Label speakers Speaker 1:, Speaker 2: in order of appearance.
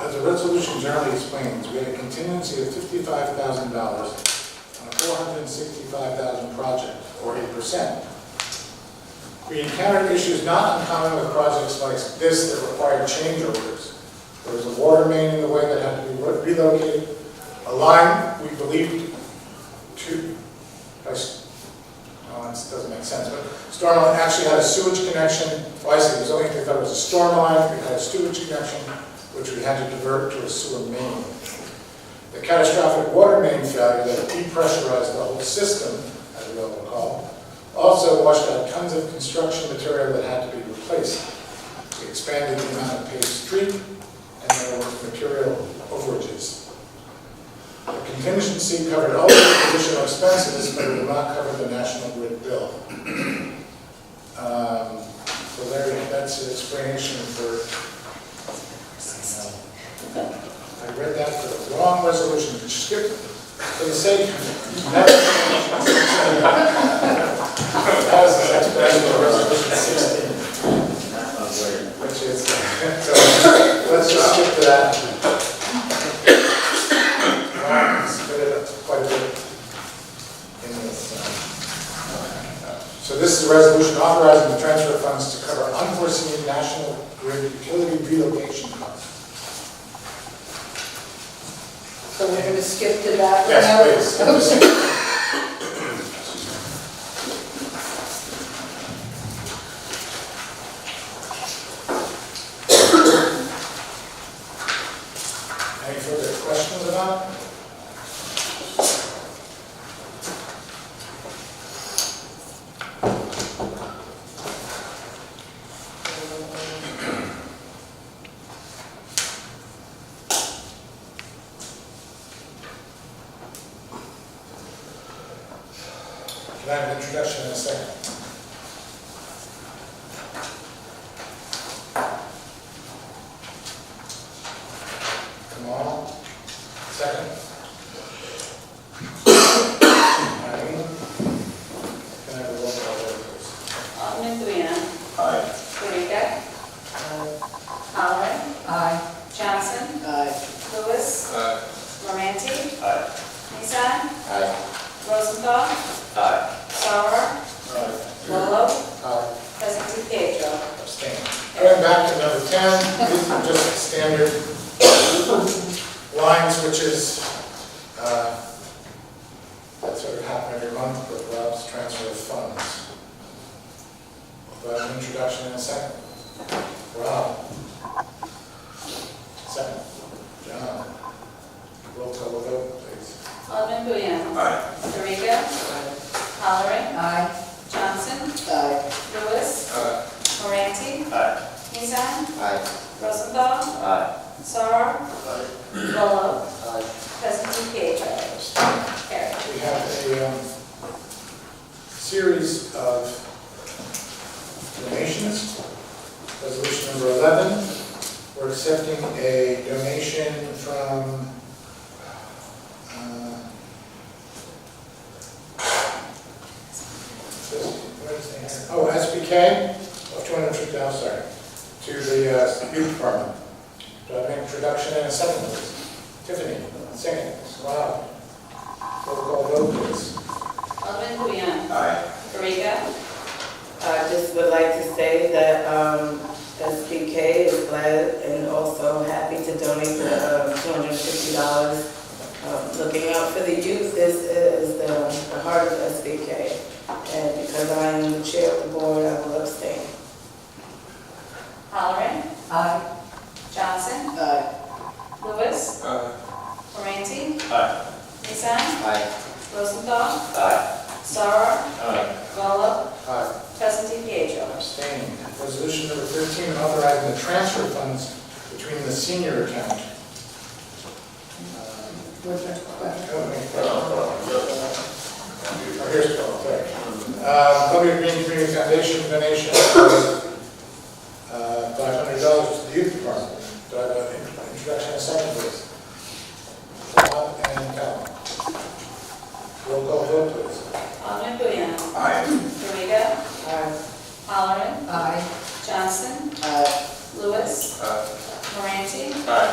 Speaker 1: As the resolution generally explains, we had a contingency of fifty-five thousand dollars on a four hundred and sixty-five thousand project, or eight percent. We encountered issues not uncommon with projects like this that required change orders. There was a water main in the way that had to be relocated, a line we believed to, I s- no, it Uh, doesn't make sense, but storm line actually had a sewage connection, well, I said it was only, they thought it was a storm line, we had a sewage connection, which we had to divert to a sewer main. The catastrophic water main failure that depressurized the whole system, as we all recall, also washed out tons of construction material that had to be replaced. We expanded the amount of paved street, and there were material overages. The contingency covered all of the additional expenses, but it did not cover the national grid bill. Um, So Larry, that's an explanation for, uh, I read that for the wrong resolution, skip, it for the sake of that. That was the explanation for resolution sixteen, which is, so, let's just skip to that. Wow, split it up quite a bit in this. uh, So this is a resolution authorizing the transfer of funds to cover unforeseen national grid utility relocation costs.
Speaker 2: So we're gonna skip to that?
Speaker 1: Yes,
Speaker 2: one now?
Speaker 1: please. Any further questions about? it? Can I have an introduction in a second? Come on, second. Eileen? Can I have a roll call vote, please?
Speaker 3: Alderman Guiana.
Speaker 4: Aye.
Speaker 3: Marika. Holland.
Speaker 2: Aye.
Speaker 3: Johnson.
Speaker 2: Aye.
Speaker 3: Lewis. Romanti.
Speaker 4: Aye.
Speaker 3: Nissan.
Speaker 1: Aye.
Speaker 3: Rosenthal.
Speaker 4: Aye.
Speaker 3: Sauer. Lolo.
Speaker 1: Aye.
Speaker 3: Presley Pietro.
Speaker 1: Abstain. Going back to number 10, these are just standard lines, which is, uh, that sort of happen every month with Rob's transfer of funds. Do I have an introduction in a second? Rob? Second. John? Roll call vote, please.
Speaker 3: Alderman Guiana.
Speaker 4: Aye.
Speaker 3: Marika. Halleran.
Speaker 2: Aye.
Speaker 3: Johnson.
Speaker 2: Aye.
Speaker 3: Lewis. Moranti,
Speaker 4: Aye.
Speaker 3: Nissan.
Speaker 1: Aye.
Speaker 3: Rosenthal.
Speaker 4: Aye.
Speaker 3: Sauer. Lolo. Presley Pietro.
Speaker 1: Abstain.
Speaker 3: Carried.
Speaker 1: We have a um, series of donations. Resolution number 11, we're accepting a donation from uh, what is it? oh, SBK of 202,000, sorry, to the uh, youth department. Do I have an introduction and a second, please? Tiffany, second, Rob. Roll call vote, please.
Speaker 3: Alderman Guiana.
Speaker 4: Aye.
Speaker 3: Marika.
Speaker 5: I just would like to say that um, SBK is glad and also happy to donate the um, $250. um, Looking out for the youth, this is the the heart of SBK. And because I am the chair of the board, I will abstain.
Speaker 3: Halleran.
Speaker 2: Aye.
Speaker 3: Johnson.
Speaker 5: Aye.
Speaker 3: Lewis.
Speaker 4: Aye.
Speaker 3: Moranti,
Speaker 4: Aye.
Speaker 3: Nissan.
Speaker 4: Aye.
Speaker 3: Rosenthal.
Speaker 4: Aye.
Speaker 3: Sauer.
Speaker 4: Aye.
Speaker 3: Gallo.
Speaker 1: Aye.
Speaker 3: Presley Pietro.
Speaker 1: Abstaining. Resolution number 13, authorizing the transfer funds between the senior account. Um,
Speaker 2: What's that?
Speaker 1: oh, wait, oh, oh, Here's Bill, sorry. Uh, Columbia Green Community Foundation donation of uh, $500 to the youth department. Do I have an introduction and a second, please? Rob and Cal. Roll call vote, please.
Speaker 3: Alderman Guiana.
Speaker 4: Aye.
Speaker 3: Rega.
Speaker 5: Aye.
Speaker 3: Halleran.
Speaker 2: Aye.
Speaker 3: Johnson.
Speaker 5: Aye.
Speaker 3: Lewis. Moranti,
Speaker 4: Aye.